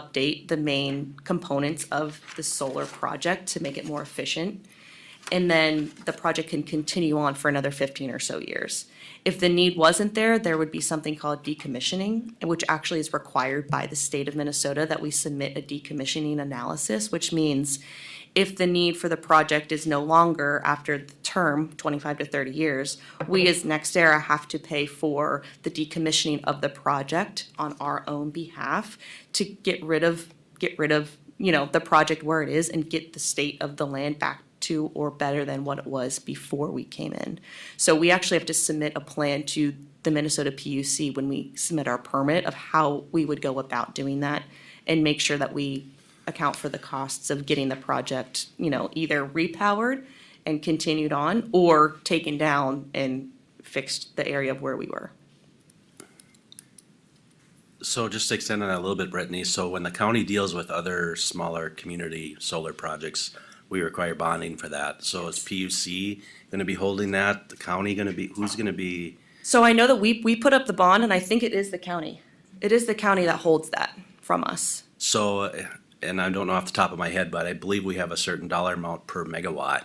update the main components of the solar project to make it more efficient. And then the project can continue on for another fifteen or so years. If the need wasn't there, there would be something called decommissioning, which actually is required by the state of Minnesota that we submit a decommissioning analysis, which means if the need for the project is no longer after the term, twenty-five to thirty years, we as NextEra have to pay for the decommissioning of the project on our own behalf to get rid of, get rid of, you know, the project where it is and get the state of the land back to or better than what it was before we came in. So we actually have to submit a plan to the Minnesota PUC when we submit our permit of how we would go about doing that and make sure that we account for the costs of getting the project, you know, either repowered and continued on or taken down and fixed the area of where we were. So just to extend on that a little bit, Brittany, so when the county deals with other smaller community solar projects, we require bonding for that. So is PUC gonna be holding that? The county gonna be, who's gonna be? So I know that we, we put up the bond and I think it is the county. It is the county that holds that from us. So, and I don't know off the top of my head, but I believe we have a certain dollar amount per megawatt.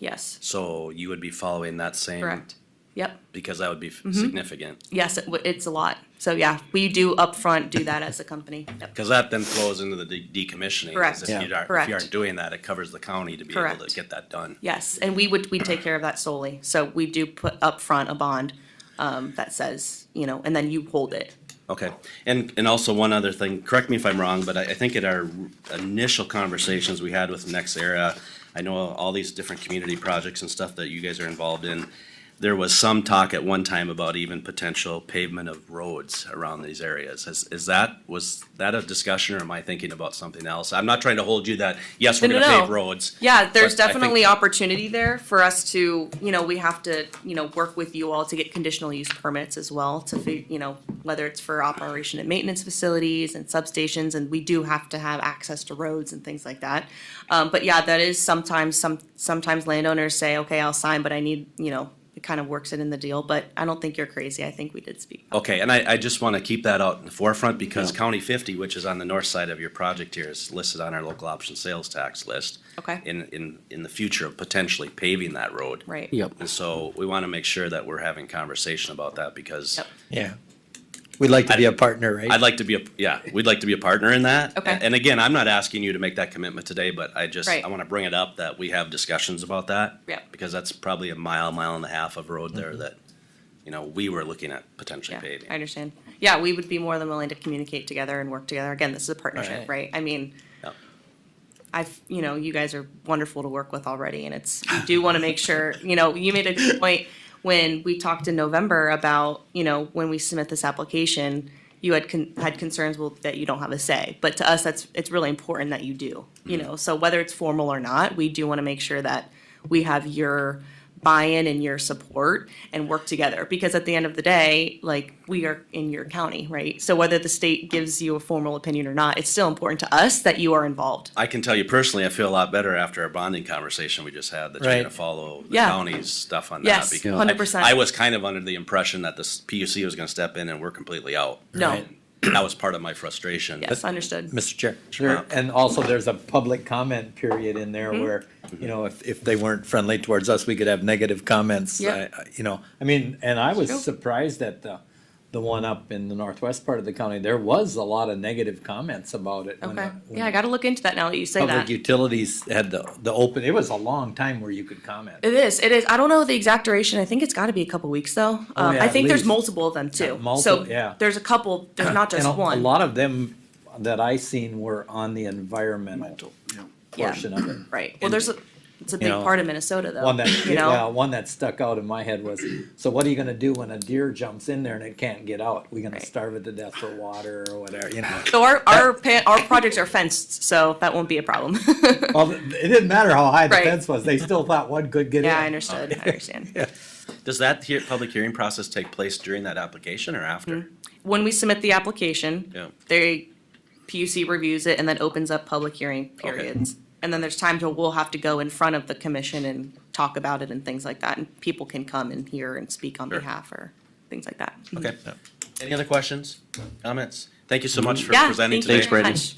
Yes, So you would be following that same? correct. Mm-hmm. Yep. Because that would be f- significant. Yes, it, w- it's a lot. So yeah, we do upfront do that as a company. Yep. Cause that then flows into the de- decommissioning. is Correct. If you aren't, if Correct. you aren't doing that, it covers the county to be able Correct. to get that done. Yes, and we would, we take care of that solely. So we do put upfront a bond, um, that says, you know, and then you hold it. Okay, and, and also one other thing, correct me if I'm wrong, but I, I think at our initial conversations we had with Next Era, I know all these different community projects and stuff that you guys are involved in, there was some talk at one time about even potential pavement of roads around these areas. Is, is that, was that a discussion or am I thinking about something else? I'm not trying to hold you that, yes, we're No, gonna no, pave no. roads. Yeah, there's But I think- definitely opportunity there for us to, you know, we have to, you know, work with you all to get conditional use permits as well to, fi- you know, whether it's for operation and maintenance facilities and substations, and we do have to have access to roads and things like that. Um, but yeah, that is sometimes, some, sometimes landowners say, okay, I'll sign, but I need, you know, it kind of works it in the deal, but I don't think you're crazy. I think we did speak. Okay, and I, I just wanna keep that out in the forefront because Yeah. County fifty, which is on the north side of your project here, is listed on our local option sales tax list. Okay. In, in, in the future of potentially paving that road. Right. Yep. And so we wanna make sure that we're having conversation about that because Yep. Yeah. We'd like to be a partner, right? I'd like to be a, yeah, we'd like to be a partner in that. Okay. And again, I'm not asking you to make that commitment today, but I just, Right. I wanna bring it up that we have discussions about that. Yep. Because that's probably a mile, mile and a half of road there that, you know, we were looking at potentially Mm-hmm. Yeah, paving. I understand. Yeah, we would be more than willing to communicate together and work together. Again, this is a partnership, Alright. right? I mean, Yep. I've, you know, you guys are wonderful to work with already, and it's, you do want to make sure, you know, you made a good point when we talked in November about, you know, when we submit this application, you had, con- had concerns well, that you don't have a say, but to us, that's, it's really important that you do, you know, so whether it's formal or not, we do want to make sure that we have your buy-in and your support and work together, because at the end of the day, like, we are in your county, right? So whether the state gives you a formal opinion or not, it's still important to us that you are involved. I can tell you personally, I feel a lot better after our bonding conversation we just had that you're Right. gonna follow the Yeah. county's stuff on Yes, that. because 100%. I I was kind of under the impression that this PUC was gonna step in and we're completely out. No, Right. That was part of my frustration. yes, understood. Mr. Chair. There- And also, there's a public comment period in there Mm-hmm. where, you know, if, if they weren't friendly towards us, we could have negative comments. Yep. I- I- You know, I mean, and I was True. surprised at the, the one up in the northwest part of the county, there was a lot of negative comments about it. when Okay, the- when yeah, I the gotta look into that now that you say Public that. utilities had the, the open, it was a long time where you could comment. It is, it is. I don't know the exact duration. I think it's gotta be a couple weeks though. Um, Oh, yeah, I at think there's least. multiple of them Yeah, too. So multiple, yeah. there's a couple, there's not just And a- A one. lot of them that I seen were on the environmental Yeah. portion of it. Right. Well, there's a, it's a big know, part of Minnesota though, One that, Um, you yeah, know? one that stuck out in my head was, so what are you gonna do when a deer jumps in there and it can't get out? We gonna Right. starve it to death for water or whatever, you know? So our, our, pa- our projects are fenced, so that won't be a problem. Well, it didn't matter how high the Right. fence was, they still thought one could get in. Yeah, I understood, I understand. Does that hear, public hearing process take place during that application or after? When we submit the application, Yeah. they, PUC reviews it and then opens up public hearing Okay. periods. And then there's times where we'll have to go in front of the commission and talk about it and things like that, and people can come and hear and speak on Sure. behalf or things like that. Okay. Any other questions, comments? Thank you so much for Yeah, presenting thank you very today. much.